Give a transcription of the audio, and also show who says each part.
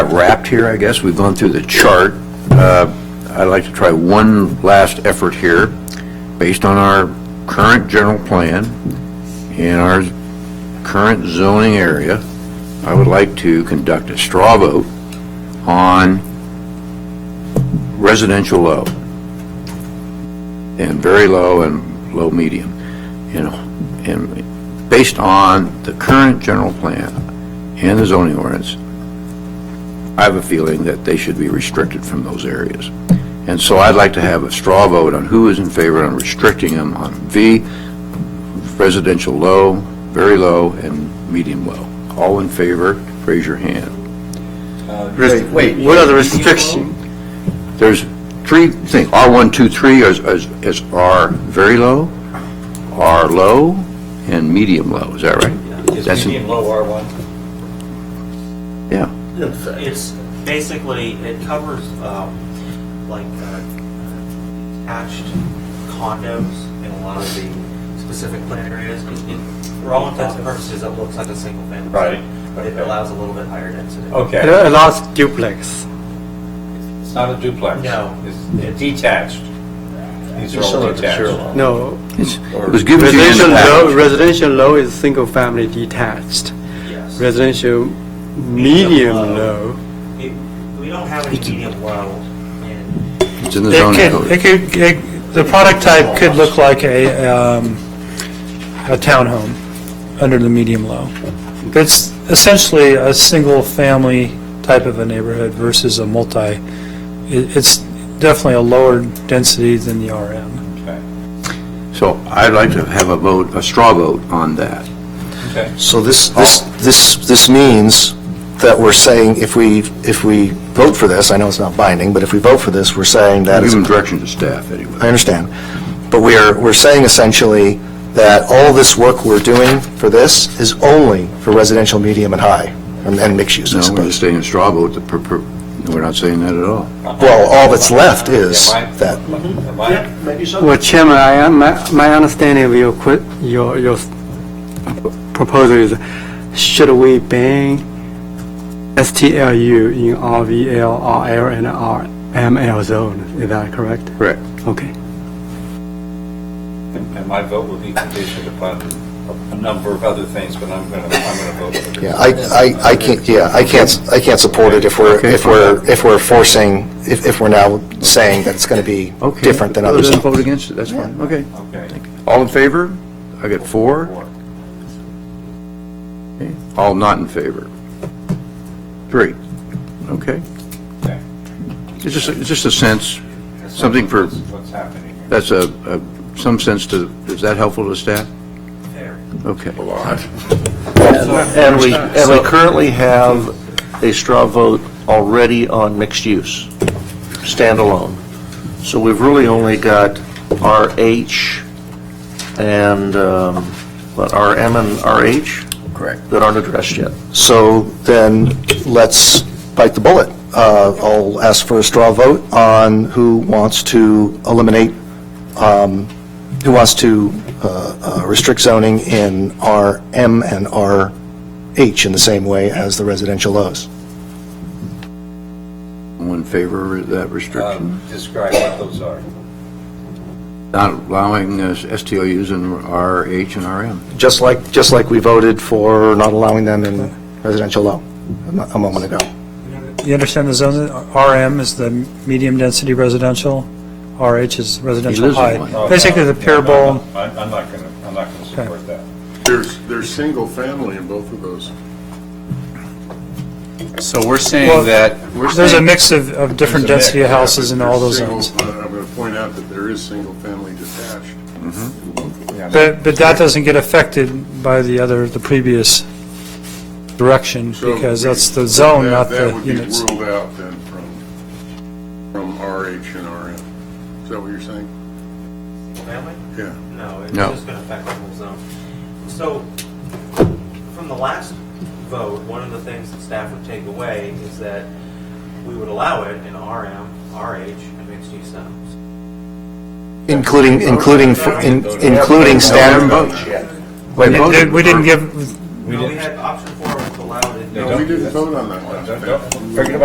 Speaker 1: wrapped here, I guess. We've gone through the chart. Uh, I'd like to try one last effort here, based on our current general plan and our current zoning area. I would like to conduct a straw vote on residential low and very low and low medium, you know, and based on the current general plan and the zoning ordinance, I have a feeling that they should be restricted from those areas. And so I'd like to have a straw vote on who is in favor on restricting them on V, residential low, very low, and medium low. All in favor, raise your hand.
Speaker 2: Wait, what are the restrictions?
Speaker 1: There's three things, R1, 2, 3 is, is- is R very low, R low, and medium low, is that right? That's
Speaker 3: Is
Speaker 1: in-
Speaker 3: medium low R1?
Speaker 1: Yeah.
Speaker 4: It's basically, it covers, um, like, uh, attached condos in a lot of the specific plan areas. It- it- For all intents and purposes, it looks like a single family.
Speaker 3: Right.
Speaker 4: But it allows a little bit higher density.
Speaker 2: It
Speaker 3: Okay,
Speaker 2: allows duplex.
Speaker 3: it's not a duplex.
Speaker 4: No.
Speaker 3: It's detached. These are all detached.
Speaker 2: No.
Speaker 1: It's- It was given to you in the
Speaker 2: Residential low,
Speaker 1: package.
Speaker 2: residential low is single family detached.
Speaker 4: Yes.
Speaker 2: Residential medium low.
Speaker 4: It- We don't have any medium low in,
Speaker 1: It's in the
Speaker 5: It
Speaker 1: zoning
Speaker 5: could,
Speaker 1: code.
Speaker 5: it could, it- the product type could look like a, um, a townhome under the medium low. It's essentially a single-family type of a neighborhood versus a multi. It- It's definitely a lower density than the RM.
Speaker 3: Okay.
Speaker 1: So I'd like to have a vote, a straw vote on that.
Speaker 3: Okay.
Speaker 6: So this, this, this, this means that we're saying if we, if we vote for this, I know it's not binding, but if we vote for this, we're saying that is,
Speaker 1: Given direction to staff, anyway.
Speaker 6: I understand. But we are, we're saying essentially that all this work we're doing for this is only for residential, medium, and high, and and mixed use,
Speaker 1: No,
Speaker 6: I
Speaker 1: we're just
Speaker 6: suppose.
Speaker 1: saying a straw vote, the per- per- we're not saying that at all.
Speaker 6: Well, all that's left is
Speaker 3: Am I-
Speaker 6: that.
Speaker 3: Am I,
Speaker 2: Well, Chairman, I am, my my understanding of your, que- your, your proposal is, should we ban STLU in RVL, RL, and RML zone? Is that correct?
Speaker 1: Correct.
Speaker 2: Okay.
Speaker 3: and my vote will be conditioned upon a number of other things, but I'm gonna, I'm gonna vote for
Speaker 6: Yeah,
Speaker 3: this.
Speaker 6: I, I, I can't, yeah, I can't, I can't support it if we're,
Speaker 1: Okay.
Speaker 6: if we're, if we're forcing, if, if we're now saying that it's going to be
Speaker 1: Okay.
Speaker 6: different than
Speaker 1: Well,
Speaker 6: others.
Speaker 1: then vote against it, that's fine, okay.
Speaker 3: Okay.
Speaker 1: All in favor? I got four.
Speaker 3: Four.
Speaker 1: Okay. All not in favor? Three. Okay.
Speaker 3: Okay.
Speaker 1: It's just, it's just a sense, something for,
Speaker 3: That's What's happening here.
Speaker 1: that's a, a- some sense to, is that helpful to staff?
Speaker 4: there.
Speaker 1: Okay.
Speaker 7: And we, and we currently have a straw vote already on mixed use, standalone. So we've really only got RH and, um, what, RM and RH?
Speaker 1: Correct.
Speaker 7: That aren't addressed yet.
Speaker 6: So then, let's bite the bullet. Uh, I'll ask for a straw vote on who wants to eliminate, um, who wants to uh, uh, restrict zoning in RM and RH in the same way as the residential lows.
Speaker 1: All in favor of that restriction?
Speaker 3: Um, Describe what those are.
Speaker 1: Not allowing uh, STLUs in RH and RM?
Speaker 6: Just like, just like we voted for not allowing them in residential low a mo- a moment ago.
Speaker 5: You understand the zone, RM is the medium-density residential, RH is residential
Speaker 1: lives in
Speaker 5: high.
Speaker 1: one.
Speaker 5: Basically, the
Speaker 3: No, no,
Speaker 5: parable.
Speaker 3: no, I'm I'm not gonna, I'm not gonna support that.
Speaker 8: There's, there's single family in both of those.
Speaker 9: So we're
Speaker 5: Well,
Speaker 9: saying that, we're
Speaker 5: There's a
Speaker 9: saying,
Speaker 5: mix of, of different
Speaker 3: There's a mix,
Speaker 5: density of houses in all those
Speaker 8: There's
Speaker 5: zones.
Speaker 8: single- uh, I'm going to point out that there is single family detached.
Speaker 5: But, but that doesn't get affected by the other, the previous direction,
Speaker 8: So
Speaker 5: because
Speaker 8: we-
Speaker 5: that's the zone,
Speaker 8: that-
Speaker 5: not the units.
Speaker 8: That would be ruled out then from, from RH and RM. Is that what you're saying?
Speaker 4: Family?
Speaker 8: Yeah.
Speaker 4: No, it's
Speaker 1: No.
Speaker 4: just going to affect the whole zone. So, from the last vote, one of the things that staff would take away is that we would allow it in RM, RH, and mixed-use zones.
Speaker 6: Including, including, f- in-
Speaker 1: Haven't
Speaker 6: including standard.
Speaker 1: voted yet.
Speaker 5: We didn't- We didn't give,
Speaker 4: No, we had option four was allowed in No, we didn't vote on that last time.
Speaker 8: Forget about